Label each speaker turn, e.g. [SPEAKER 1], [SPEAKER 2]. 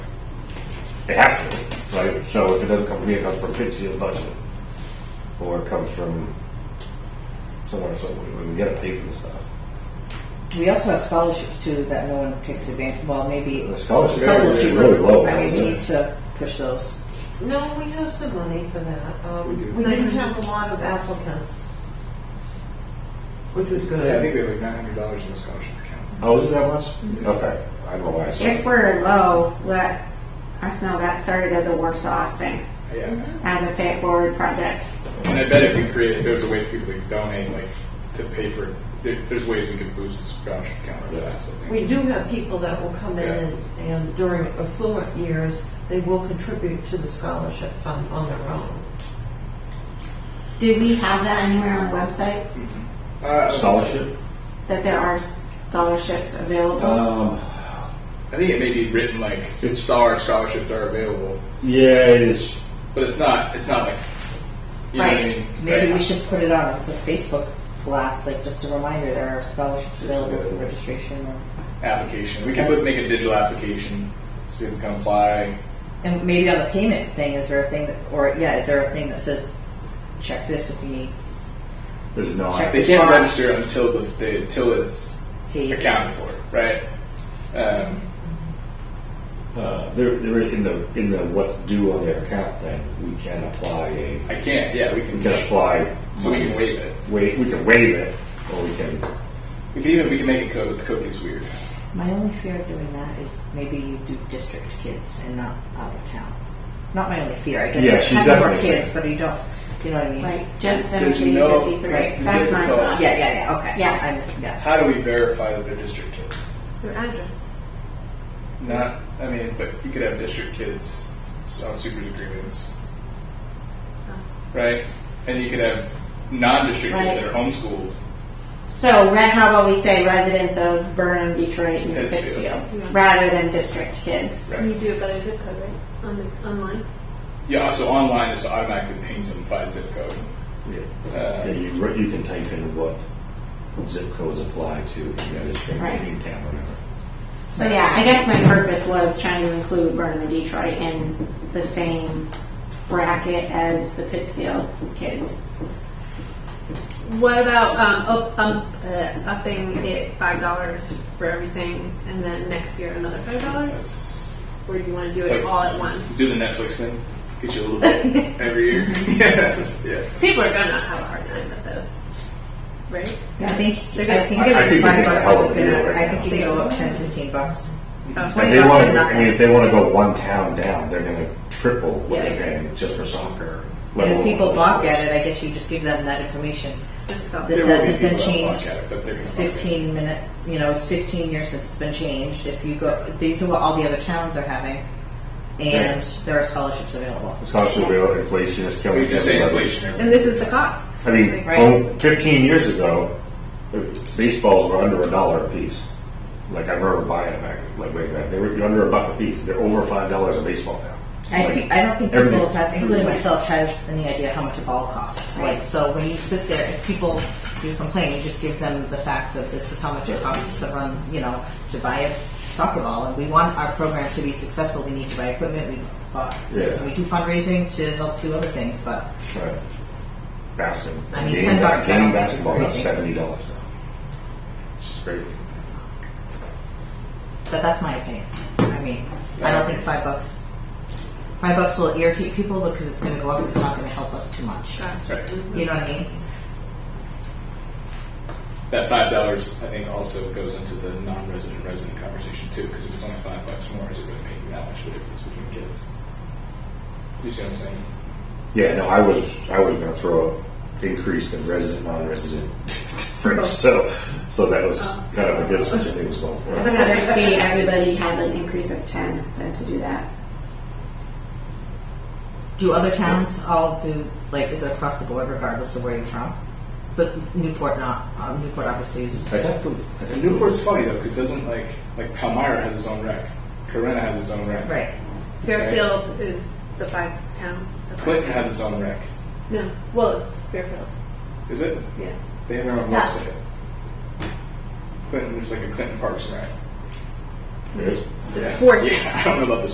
[SPEAKER 1] right? So if it doesn't come from me, it comes from Pittsfield budget. Or it comes from somewhere, so we, we gotta pay for the stuff.
[SPEAKER 2] We also have scholarships too that no one takes advantage, well, maybe
[SPEAKER 1] The
[SPEAKER 2] a
[SPEAKER 1] scholarship
[SPEAKER 2] couple of
[SPEAKER 1] is
[SPEAKER 2] people.
[SPEAKER 1] really low,
[SPEAKER 2] I mean,
[SPEAKER 1] isn't
[SPEAKER 2] we
[SPEAKER 1] it?
[SPEAKER 2] need to push those.
[SPEAKER 3] No, we have some money for that.
[SPEAKER 4] We do.
[SPEAKER 3] Um, We didn't have a lot of applicants, which was
[SPEAKER 4] Yeah, I
[SPEAKER 3] good.
[SPEAKER 4] think we have like nine hundred dollars in the scholarship account.
[SPEAKER 1] Oh, is it that much? Okay, I don't know why I
[SPEAKER 5] If
[SPEAKER 1] said.
[SPEAKER 5] we're low, let us know that started as a Warsaw thing,
[SPEAKER 4] Yeah,
[SPEAKER 5] as a pay it forward project.
[SPEAKER 4] and I bet if we create, if there's a way for people to donate, like to pay for, there, there's ways we could boost the scholarship account or that. So I think-
[SPEAKER 3] We do have people that will come in and- and during affluent years, they will contribute to the scholarship fund on their own.
[SPEAKER 5] Did we have that anywhere on the website,
[SPEAKER 4] Uh,
[SPEAKER 1] Scholarship?
[SPEAKER 5] that there are scholarships available?
[SPEAKER 1] Um,
[SPEAKER 4] I think it may be written like star scholarships are available,
[SPEAKER 1] yeah, it is.
[SPEAKER 4] but it's not. It's not like you know what I mean.
[SPEAKER 2] Maybe we
[SPEAKER 4] Right.
[SPEAKER 2] should put it on as a Facebook blast, like just a reminder, there are scholarships available for registration. or-
[SPEAKER 4] application. We can put, make a digital application so people can apply.
[SPEAKER 2] And maybe on the payment thing, is there a thing that, or, yeah, is there a thing that says, check this if you need
[SPEAKER 1] There's no.
[SPEAKER 2] Check.
[SPEAKER 4] They can't register until the, the until it's
[SPEAKER 2] paid?
[SPEAKER 4] accounted for, right? Um,
[SPEAKER 1] Uh, they're, they're in the, in the what's due on their account thing, we can apply a,
[SPEAKER 4] I can't. Yeah, we can.
[SPEAKER 1] we can apply.
[SPEAKER 4] So we can waive it.
[SPEAKER 1] Wait, we can waive it, or we can,
[SPEAKER 4] We can even we can make it code, but the code gets weird.
[SPEAKER 2] My only fear of doing that is maybe you do district kids and not out of town. Not my only fear, I guess.
[SPEAKER 1] Yeah,
[SPEAKER 2] you
[SPEAKER 1] she
[SPEAKER 2] have more
[SPEAKER 1] definitely
[SPEAKER 2] kids, but you don't, you know what I mean?
[SPEAKER 5] Like, just
[SPEAKER 4] There's
[SPEAKER 5] seventeen
[SPEAKER 4] no-
[SPEAKER 5] fifty-three,
[SPEAKER 4] right,
[SPEAKER 5] that's my
[SPEAKER 4] difficult.
[SPEAKER 5] thought.
[SPEAKER 2] Yeah, yeah, yeah, okay.
[SPEAKER 5] Yeah.
[SPEAKER 2] I mis- yeah.
[SPEAKER 4] How do we verify that they're district kids?
[SPEAKER 3] Their address.
[SPEAKER 4] Not. I mean, but you could have district kids on super agreements, right? And you could have non-district kids that are homeschooled.
[SPEAKER 5] So, re- how about we say residents of Burnham, Detroit, and
[SPEAKER 4] Pittsfield.
[SPEAKER 5] Pittsfield,
[SPEAKER 6] Yeah.
[SPEAKER 5] rather than district kids?
[SPEAKER 4] Right.
[SPEAKER 6] You do it by the zip code, right? On the, online?
[SPEAKER 4] Yeah, so online just automatically pings them by zip code.
[SPEAKER 1] yeah,
[SPEAKER 4] Uh,
[SPEAKER 1] you, you can type in what zip codes apply to, you know, this thing,
[SPEAKER 5] Right.
[SPEAKER 1] in town, whatever.
[SPEAKER 5] So yeah, I guess my purpose was trying to include Burnham and Detroit in the same bracket as the Pittsfield kids.
[SPEAKER 6] What about um, up, um, uh, upping it $5 for everything and then next year another $5? Or do you want to do it
[SPEAKER 4] Like-
[SPEAKER 6] all at once?
[SPEAKER 4] Do the Netflix thing. Get you a little bit every year. yeah. yeah.
[SPEAKER 6] People are going to have a hard time with this, right?
[SPEAKER 2] I think,
[SPEAKER 6] They're
[SPEAKER 2] I
[SPEAKER 6] gonna-
[SPEAKER 2] think
[SPEAKER 1] I- I
[SPEAKER 2] getting
[SPEAKER 1] think
[SPEAKER 2] five
[SPEAKER 1] it's a
[SPEAKER 2] bucks
[SPEAKER 1] hell of
[SPEAKER 2] is
[SPEAKER 1] a deal
[SPEAKER 2] gonna,
[SPEAKER 1] right
[SPEAKER 2] I think
[SPEAKER 1] now.
[SPEAKER 2] you can go up ten, fifteen bucks.
[SPEAKER 6] Oh.
[SPEAKER 1] If
[SPEAKER 2] Twenty
[SPEAKER 1] they
[SPEAKER 2] bucks
[SPEAKER 1] want
[SPEAKER 2] is
[SPEAKER 1] to, I mean, if
[SPEAKER 2] nothing.
[SPEAKER 1] they want to go one town down, they're going to triple what
[SPEAKER 6] Yeah.
[SPEAKER 1] they're paying just for soccer. let
[SPEAKER 2] And if
[SPEAKER 1] alone
[SPEAKER 2] people
[SPEAKER 1] other
[SPEAKER 2] balk
[SPEAKER 1] sports.
[SPEAKER 2] at it, I guess you just give them that information.
[SPEAKER 6] Just go.
[SPEAKER 2] This
[SPEAKER 4] There will
[SPEAKER 2] hasn't
[SPEAKER 4] be
[SPEAKER 2] been
[SPEAKER 4] people that
[SPEAKER 2] changed
[SPEAKER 4] block at it, but they're gonna block it.
[SPEAKER 2] Fifteen minutes, you know, it's fifteen years since it's been changed. If you go, these are what all the other towns are having. And there are scholarships available.
[SPEAKER 1] It's also real inflation is killing.
[SPEAKER 4] We just say
[SPEAKER 1] everybody.
[SPEAKER 4] inflation. every-
[SPEAKER 6] And this is the cost.
[SPEAKER 1] I mean,
[SPEAKER 2] Right.
[SPEAKER 1] oh, 15 years ago, baseballs were under a dollar a piece. Like I remember buying them back, like way back. They were under a buck a piece. They're over five dollars a baseball now.
[SPEAKER 2] I,
[SPEAKER 1] Like,
[SPEAKER 2] I don't think people
[SPEAKER 1] everything's-
[SPEAKER 2] have, including myself, has any idea how much a ball costs. Like, so when you sit there, if people do complain, you just give them the facts of this is how much it costs to run, you know, to buy a soccer ball. And we want our program to be successful. We need to buy equipment. We bought this,
[SPEAKER 1] Yeah.
[SPEAKER 2] and we do fundraising to help do other things. But
[SPEAKER 1] right. Basketball.
[SPEAKER 2] I mean,
[SPEAKER 1] Game-
[SPEAKER 2] 10 bucks, I
[SPEAKER 1] Game
[SPEAKER 2] don't think it's
[SPEAKER 1] basketball is
[SPEAKER 2] crazy.
[SPEAKER 1] seventy dollars now. It's just crazy.
[SPEAKER 2] but that's my opinion. I mean, I don't think five bucks. Five bucks will irritate people because it's going to go up. and It's not going to help us too much.
[SPEAKER 4] That's right.
[SPEAKER 2] You know what I mean?
[SPEAKER 4] That five dollars, I think, also goes into the non-resident resident conversation too, because if it's only five bucks more, is it really making that much of a difference between kids? You see what I'm saying?
[SPEAKER 1] Yeah, no, I was I was going to throw up increase in resident non-resident
[SPEAKER 2] Oh.
[SPEAKER 1] difference. So, so that was kind of against what you think was going
[SPEAKER 5] I'd
[SPEAKER 1] for.
[SPEAKER 5] rather see everybody have an increase of ten than to do that.
[SPEAKER 2] Do other towns all do, like, is it across the board regardless of where you're from? But Newport not, um, Newport obviously is,
[SPEAKER 1] I'd have to. I'd have
[SPEAKER 4] And
[SPEAKER 1] to-
[SPEAKER 4] Newport's funny though, because doesn't like like Palmyra has its own rec, Corona has its own rec,
[SPEAKER 2] right.
[SPEAKER 6] Fairfield is the five town. the five-
[SPEAKER 4] Clinton has its own rec.
[SPEAKER 6] No. Well, it's Fairfield.
[SPEAKER 4] Is it?
[SPEAKER 6] Yeah.
[SPEAKER 4] They have their own
[SPEAKER 6] Stop.
[SPEAKER 4] website. Clinton, there's like a Clinton Parks and Rec.
[SPEAKER 1] There's-
[SPEAKER 6] The
[SPEAKER 4] Yeah.
[SPEAKER 6] sports.
[SPEAKER 4] Yeah, I don't know about the